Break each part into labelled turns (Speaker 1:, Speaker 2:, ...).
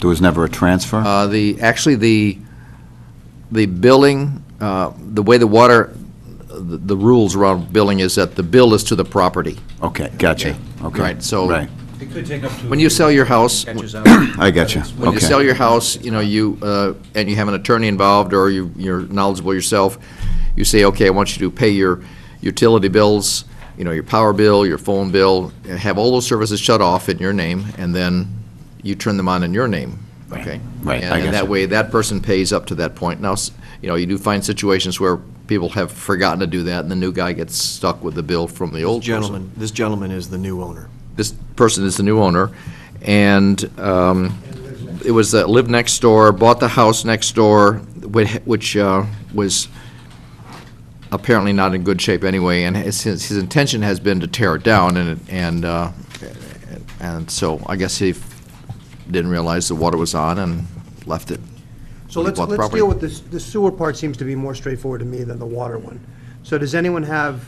Speaker 1: There was never a transfer?
Speaker 2: Uh, The, actually, the, the billing, uh, the way the water, the the rules around billing is that the bill is to the property.
Speaker 1: Okay, gotcha. Okay.
Speaker 2: Right, so-
Speaker 1: Right,
Speaker 3: It could take up to.
Speaker 2: When you sell your house,
Speaker 3: Catches
Speaker 2: when
Speaker 3: up. When
Speaker 1: I gotcha.
Speaker 2: you
Speaker 1: Okay.
Speaker 2: sell your house, you know, you, uh, and you have an attorney involved, or you- you're knowledgeable yourself, you say, okay, I want you to pay your utility bills, you know, your power bill, your phone bill, and have all those services shut off in your name, and then you turn them on in your name, okay?
Speaker 1: Right, I
Speaker 2: And- And
Speaker 1: gotcha.
Speaker 2: that way, that person pays up to that point. Now, s- you know, you do find situations where people have forgotten to do that, and the new guy gets stuck with the bill from the old person.
Speaker 4: Gentleman, this gentleman is the new owner.
Speaker 2: this person is the new owner, and um, it was that lived next door, bought the house next door, whi- which uh, was apparently not in good shape anyway, and his, his intention has been to tear it down, and, it- and, uh, and so I guess he didn't realize the water was on and left it.
Speaker 5: So
Speaker 2: We
Speaker 5: let's,
Speaker 2: bought the
Speaker 5: let's
Speaker 2: property.
Speaker 5: deal with this, the sewer part seems to be more straightforward to me than the water one. So does anyone have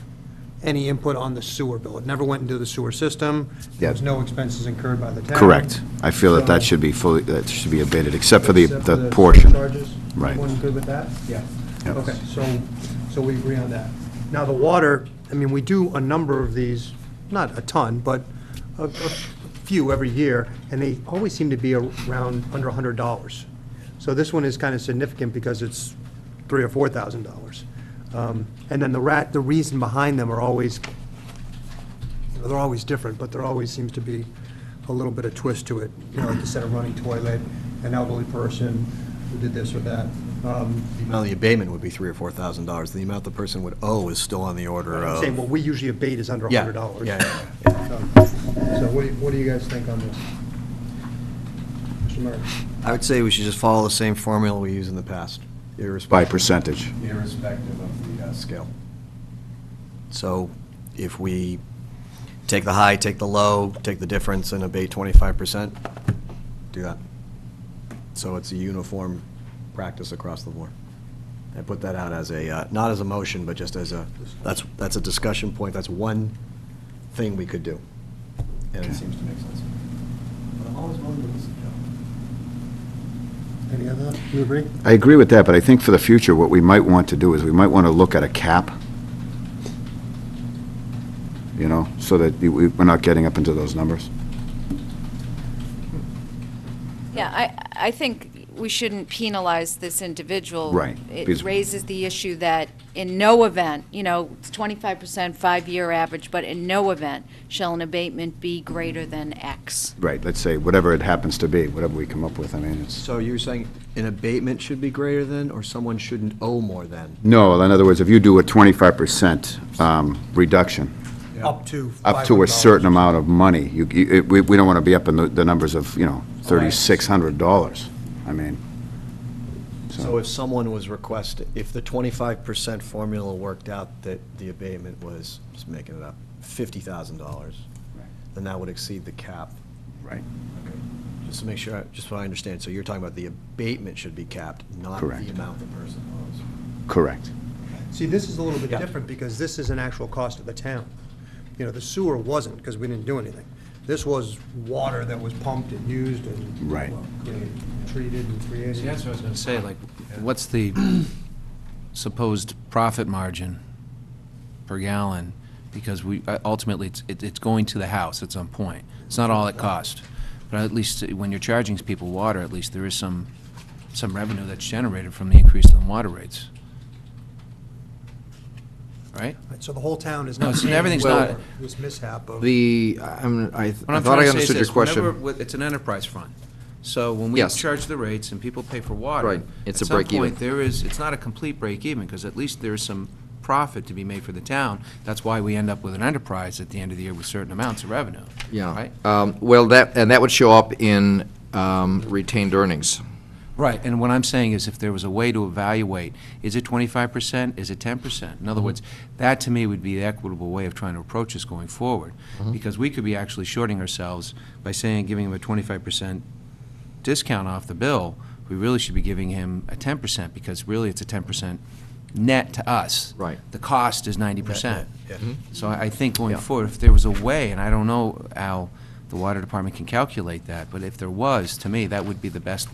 Speaker 5: any input on the sewer bill? It never went into the sewer system, there was
Speaker 1: Yeah.
Speaker 5: no expenses incurred by the town.
Speaker 1: Correct. I feel that that should be fully, that should be abated, except for the,
Speaker 5: Except
Speaker 1: the portion.
Speaker 5: Charges?
Speaker 1: Right.
Speaker 5: Everyone good with that? Yeah.
Speaker 1: Yep.
Speaker 5: Okay, so, so we agree on that. Now, the water, I mean, we do a number of these, not a ton, but a, a few every year, and they always seem to be around under a hundred dollars. So this one is kind of significant because it's three or four thousand dollars. Um, And then the rat, the reason behind them are always they're always different, but there always seems to be a little bit of twist to it. You know, like you said, a running toilet, an elderly person who did this or that. Um,
Speaker 4: The amount of the abatement would be three or four thousand dollars. The amount the person would owe is still on the order
Speaker 5: I'm
Speaker 4: of.
Speaker 5: Saying what we usually abate is under a
Speaker 4: Yeah,
Speaker 5: hundred dollars.
Speaker 4: yeah, yeah,
Speaker 5: So what do, you- what do you guys think on this? Mr. Murray?
Speaker 4: I would say we should just follow the same formula we used in the past,
Speaker 1: By
Speaker 4: irrespective,
Speaker 1: percentage.
Speaker 4: irrespective of the uh, scale. So if we take the high, take the low, take the difference and abate twenty-five percent, do that. So it's a uniform practice across the board. I put that out as a, uh, not as a motion, but just as a, that's, that's a discussion point, that's one thing we could do. And it seems to make sense. But I'm always willing to listen, Joe.
Speaker 5: Any other, you agree?
Speaker 1: I agree with that, but I think for the future, what we might want to do is we might want to look at a cap, you know, so that we- we're not getting up into those numbers.
Speaker 6: Yeah, I, I think we shouldn't penalize this individual.
Speaker 1: Right, because-
Speaker 6: It raises the issue that in no event, you know, it's twenty-five percent five-year average, but in no event shall an abatement be greater than X.
Speaker 1: Right, let's say, whatever it happens to be, whatever we come up with, I mean, it's,
Speaker 4: So you're saying an abatement should be greater than, or someone shouldn't owe more than?
Speaker 1: no, in other words, if you do a 25% um, reduction,
Speaker 5: Up to.
Speaker 1: up to a
Speaker 5: $500.
Speaker 1: certain amount of money. You, you- it- we, we don't want to be up in the, the numbers of, you know, thirty-six hundred dollars. I mean,
Speaker 4: So if someone was requested, if the twenty-five percent formula worked out that the abatement was, just making it up, fifty thousand dollars, then that would exceed the cap.
Speaker 1: Right.
Speaker 4: Just to make sure, I- just so I understand, so you're talking about the abatement should be capped, not
Speaker 1: Correct.
Speaker 4: the amount the person owes.
Speaker 1: correct.
Speaker 5: See, this is a little bit
Speaker 4: Yeah.
Speaker 5: different because this is an actual cost of the town. You know, the sewer wasn't because we didn't do anything. This was water that was pumped and used and.
Speaker 1: Right.
Speaker 5: well, created, Treated and created.
Speaker 3: See, that's what I was going to say, like, what's the supposed profit margin per gallon? Because we, uh, ultimately, it's, it- it's going to the house at some point. It's not all it cost. But at least uh, when you're charging people water, at least there is some, some revenue that's generated from the increase in water rates. Right?
Speaker 5: So the whole town is
Speaker 3: No,
Speaker 5: not
Speaker 3: it's-
Speaker 5: paying
Speaker 3: everything's
Speaker 5: for
Speaker 3: not-
Speaker 5: this mishap of.
Speaker 2: The, I'm- I
Speaker 3: What
Speaker 2: I
Speaker 3: I'm
Speaker 2: thought
Speaker 3: trying
Speaker 2: I
Speaker 3: to say is
Speaker 2: understood your
Speaker 3: this, whenever,
Speaker 2: question.
Speaker 3: with- it's an enterprise fund. So when we
Speaker 2: Yes.
Speaker 3: charge the rates and people pay for water.
Speaker 2: Right. It's
Speaker 3: at
Speaker 2: a
Speaker 3: some
Speaker 2: break even.
Speaker 3: point, There is, it's not a complete break even, because at least there's some profit to be made for the town. That's why we end up with an enterprise at the end of the year with certain amounts of revenue.
Speaker 2: Yeah,
Speaker 3: Right?
Speaker 2: Um, well, that, and that would show up in um, retained earnings.
Speaker 3: Right, and what I'm saying is if there was a way to evaluate, is it twenty-five percent, is it ten percent? In other words, that to me would be the equitable way of trying to approach this going forward. Because we could be actually shorting ourselves by saying, giving him a twenty-five percent discount off the bill, we really should be giving him a ten percent, because really it's a ten percent net to us.
Speaker 2: Right.
Speaker 3: The cost is ninety percent.
Speaker 4: Yeah.
Speaker 3: So I I think going forward, if there was a way, and I don't know, Al, The water department can calculate that, but if there was, to me, that would be the best